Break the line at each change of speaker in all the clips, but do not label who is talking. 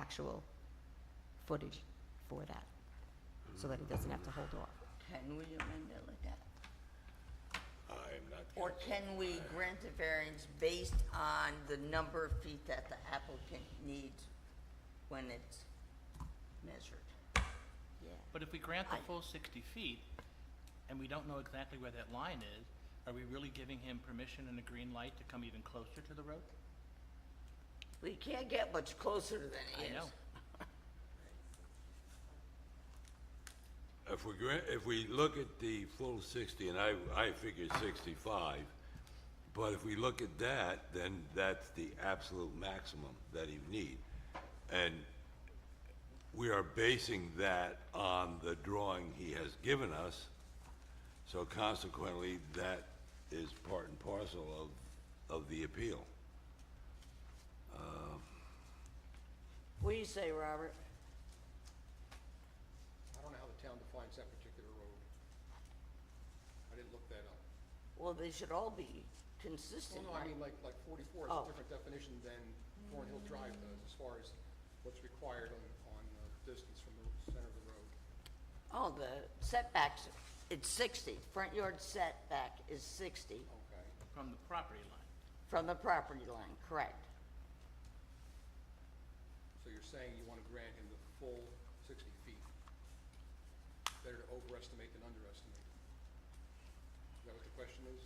actual footage for that, so that he doesn't have to hold off.
Can we amend it like that?
I'm not.
Or can we grant a variance based on the number of feet that the applicant needs when it's measured? Yeah.
But if we grant the
I-
full sixty feet, and we don't know exactly where that line is, are we really giving him permission and a green light to come even closer to the road?
We can't get much closer than it
I
is.
know.
If we grant, if we look at the full sixty, and I, I figured sixty-five, but if we look at that, then that's the absolute maximum that you need. And we are basing that on the drawing he has given us, so consequently, that is part and parcel of, of the appeal.
What do you say, Robert?
I don't know how the town defines that particular road. I didn't look that up.
Well, they should all be
Well,
consistent,
no, I
right?
mean, like, like forty-four is
Oh.
a different definition than Thorn Hill Drive does as far as what's required on, on uh, distance from the center of the road.
Oh, the setbacks, it's sixty, front yard setback is sixty
Okay.
From the property line.
from the property line, correct?
So you're saying you wanna grant him the full sixty feet? Better to overestimate than underestimate. Is that what the question is?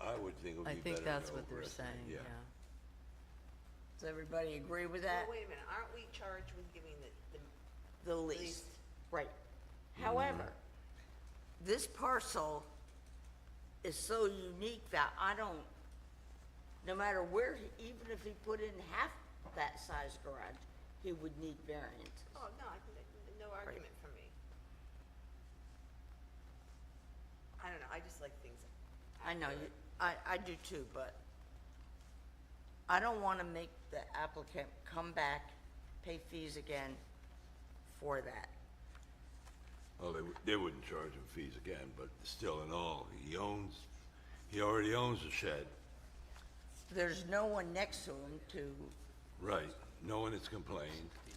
I would think it would
I
be
think
better to
that's what they're
overestimate,
saying, yeah.
Does everybody agree with that?
Well, wait a minute, aren't we charged with giving the, the,
the least.
Least. Mm-hmm.
Right. However, this parcel is so unique that I don't, no matter where, he- even if he put in half that size garage, he would need variance.
oh, no, I think, that- no argument from me. I don't know, I just like things.
I know, you- I, I do too, but I don't want to make the applicant come back, pay fees again for that.
Well, they, wou- they wouldn't charge him fees again, but still in all, he owns, he already owns the shed.
There's no one next to him to,
Right, no one has complained.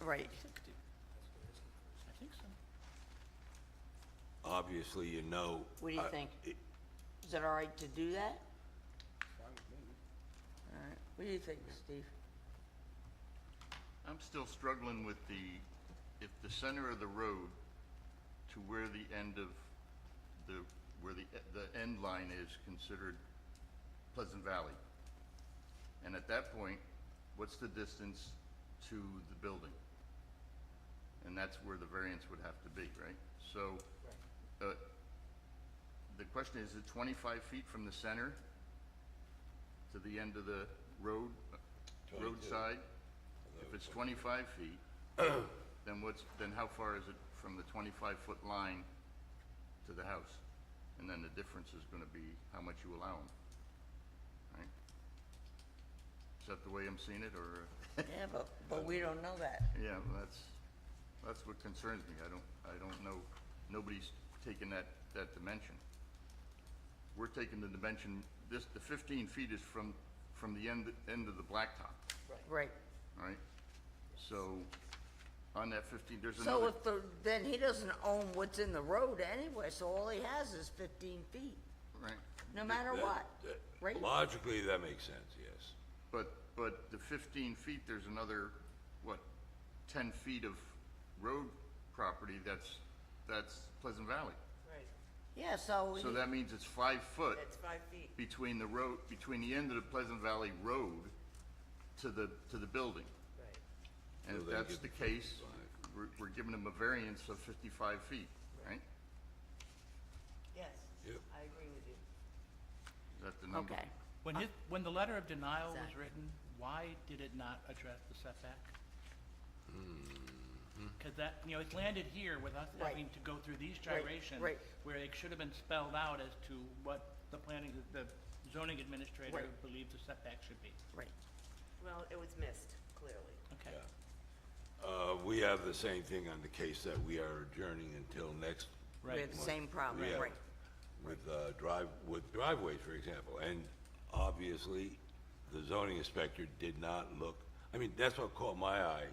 right,
Sixty. I think so.
Obviously, you know. uh,
What do you
I-
think?
it-
is it all right to do that?
Fine with me.
All right, what do you think, Steve?
I'm still struggling with the, if the center of the road to where the end of the, where the, the end line is considered Pleasant Valley. And at that point, what's the distance to the building? And that's where the variance would have to be, right? So, uh, the question is, is it twenty-five feet from the center to the end of the road, uh, roadside? If it's twenty-five feet, then what's, then how far is it from the twenty-five foot line to the house? And then the difference is gonna be how much you allow them, right? Is that the way I'm seeing it, or,
Yeah, but, but we don't know that.
yeah, well, that's, that's what concerns me, I don't, I don't know, nobody's taken that, that dimension. We're taking the dimension, this, the fifteen feet is from, from the end, end of the blacktop,
Right.
right? So, on that fifteen, there's another.
So if the, then he doesn't own what's in the road anyway, so all he has is fifteen feet,
Right,
no matter
that-
what,
that-
right?
Logically, that makes sense, yes.
but, but the fifteen feet, there's another, what, ten feet of road property that's, that's Pleasant Valley.
Right,
Yeah, so,
So
he-
that means it's five foot
that's five feet.
between the road, between the end of the Pleasant Valley Road to the, to the building.
Right,
And if
So they
that's
give
the
the
case,
55.
we're, we're giving them a variance of fifty-five feet, right?
yes,
Yep.
I agree with you.
Is that the number?
okay.
When his, when the letter of denial was
Exactly.
written, why did it not address the setback? Cause that, you know, it's landed here with us
Right.
having to go through these gyrations.
right.
Where it should have been spelled out as to what the planning, the zoning administrator
Right.
believes the setback should be.
Right.
Well, it was missed, clearly.
Okay.
Uh, we have the same thing on the case that we are adjourning until next.
We have the same problem,
Yeah.
right?
With, uh, drive, with driveways, for example, and obviously, the zoning inspector did not look, I mean, that's what caught my eye